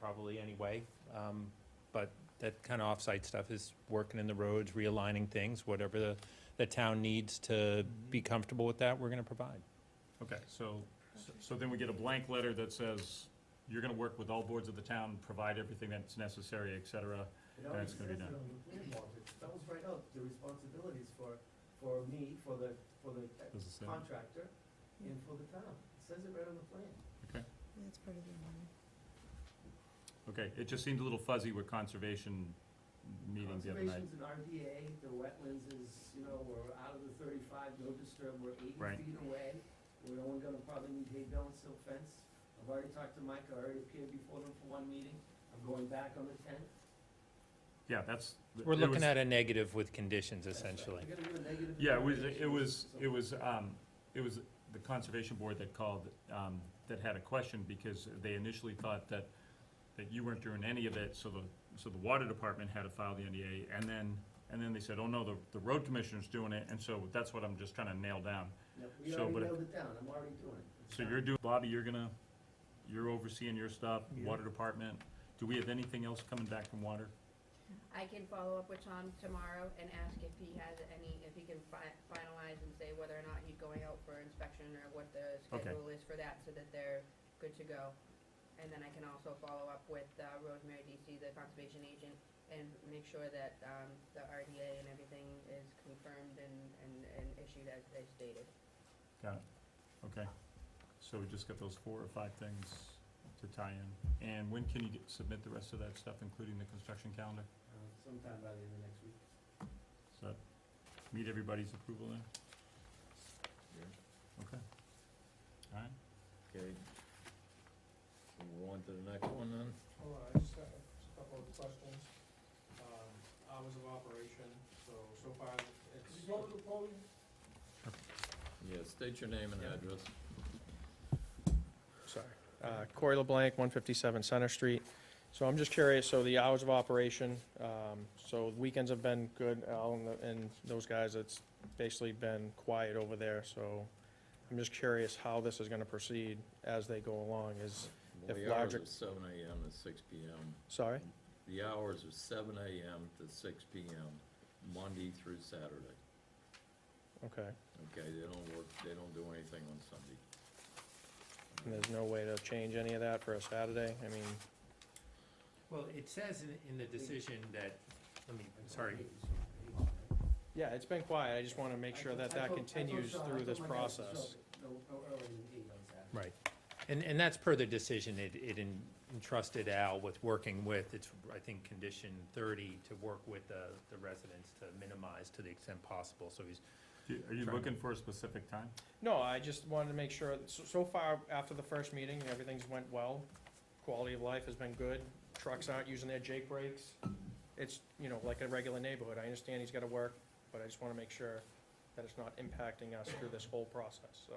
probably anyway. Um, But that kind of off-site stuff is working in the roads, realigning things, whatever the, the town needs to be comfortable with that, we're gonna provide. Okay, so, so then we get a blank letter that says, you're gonna work with all boards of the town, provide everything that's necessary, et cetera. It already That's gonna be says done. it on the plan, Walter. it spells right out the responsibilities for, for me, for the, for the Does it say? contractor, and for the town. It says it right on the plan. That's part of the money. Okay, it just seemed a little fuzzy with conservation meeting the other night. Conservation's an RDA, the wetlands is, you know, we're out of the thirty-five, no disturb, we're eighty Right. feet away. We're only gonna probably need hay bale and silk fence. I've already talked to Mike, I already appeared before them for one meeting. I'm going back on the tenth. Yeah, that's. We're it was- looking at a negative with conditions essentially. We're gonna do a negative. Yeah, it was, it evaluation, was, so- it was, um, it was the conservation board that called, um, that had a question because they initially thought that, that you weren't doing any of it, so the, so the water department had to file the NDA, and then, and then they said, oh no, the, the road commissioner's doing it, and so that's what I'm just trying to nail down. No, We so, already but if- nailed it down, I'm already doing it. It's So done. you're doing, Bobby, you're gonna, you're overseeing your stuff, Yeah. water department, do we have anything else coming back from water? I can follow up with Tom tomorrow and ask if he has any, if he can fi- finalize and say whether or not he's going out for inspection or what the Okay. schedule is for that, so that they're good to go. And then I can also follow up with uh, Rosemary DC, the conservation agent, and make sure that um, the RDA and everything is confirmed and, and, and issued as they stated. Got it, okay, so we just got those four or five things to tie in, and when can you get- submit the rest of that stuff, including the construction calendar? Uh, Sometime by the end of next week. Does that meet everybody's approval then? Okay, alright, Okay. So we're on to the next one then? Hold on, I just have a couple of questions. Um, Hours of operation, so, so far, it's. What was the poll? Yeah, state your name and Yeah. address. Sorry. Uh, Corey LeBlanc, 157 Center Street. So I'm just curious, so the hours of operation, um, so weekends have been good, Al and the- and those guys, it's basically been quiet over there, so I'm just curious how this is gonna proceed as they go along, is, Well, If the hours larger- are seven AM to six PM. sorry? The hours are seven AM to six PM, Monday through Saturday. Okay, Okay, they don't work, they don't do anything on Sunday. and there's no way to change any of that for a Saturday, I mean, Well, it says in, in the decision that, let me, sorry, yeah, it's been quiet, I just wanna make sure that I that told- I told continues Sean, I through told this my guys to process. show it No, no earlier than eight on Saturday. Right, and, and that's per the decision it, it en- entrusted Al with working with, it's, I think, condition thirty, to work with the, the residents to minimize to the extent possible, so he's, Do- are you Sure. looking for a specific time? No, I just wanted to make sure, so, so far, after the first meeting, everything's went well. Quality of life has been good, trucks aren't using their Jake brakes. It's, you know, like a regular neighborhood, I understand he's gotta work, but I just wanna make sure that it's not impacting us through this whole process, so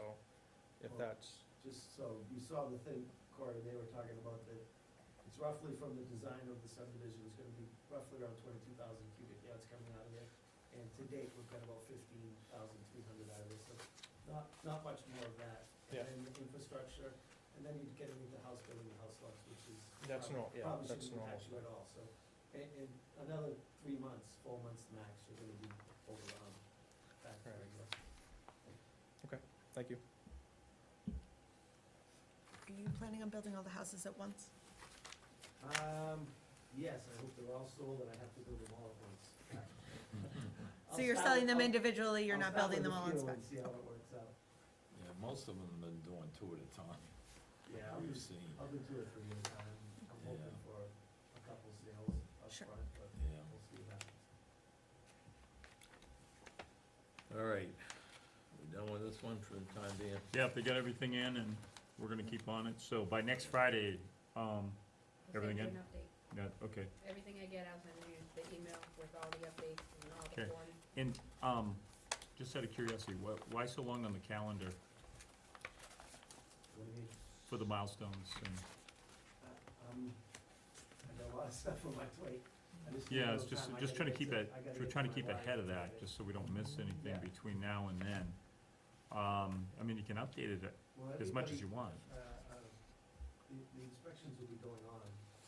if that's, Just so, you saw the thing, Corey, they were talking about that it's roughly from the design of the subdivision, it's gonna be roughly around twenty-two thousand cubic yards coming out of there. And to date, we've got about fifteen thousand three hundred out of this, so not, not much more of that. Yeah. And then the infrastructure, and then you'd get into house building and house lots, which is. that's probably- not, yeah, probably that's shouldn't normal. impact you at all, so, in, in another three months, four months max, you're gonna be over the hump. Back to Right. regular. Thank you. Are you planning on building all the houses at once? Um, yes, I hope they're all sold and I have to build them all at once. So you're selling them individually, you're not building them all in spec? spec. I'll see how it works out. Yeah, most of them have been doing two at a time, Yeah, I'll do, we've seen, I'll do two or three at a time. I'm hoping Yeah. for a couple sales up Sure. front, but yeah. we'll see what happens. All right, we done with this one for the time being? Yeah, if they got everything in and we're gonna keep on it, so by next Friday, um, I'll send Everything you in? an update. yeah, okay. Everything I get, I'll send you the email with all the updates and all the Okay. forms. And, um, just out of curiosity, why, why so long on the calendar What do you mean? for the milestones and? Uh, Um, I got a lot of stuff on my plate. I just need a Yeah, it's little just, time. I just gotta trying to get keep it, I gotta we're get trying to my keep wires ahead of together. that, just so we don't miss anything Yeah. between now and then. Um, I mean, you can update it Well, as much as everybody- you want. uh, uh, the, the inspections will be going on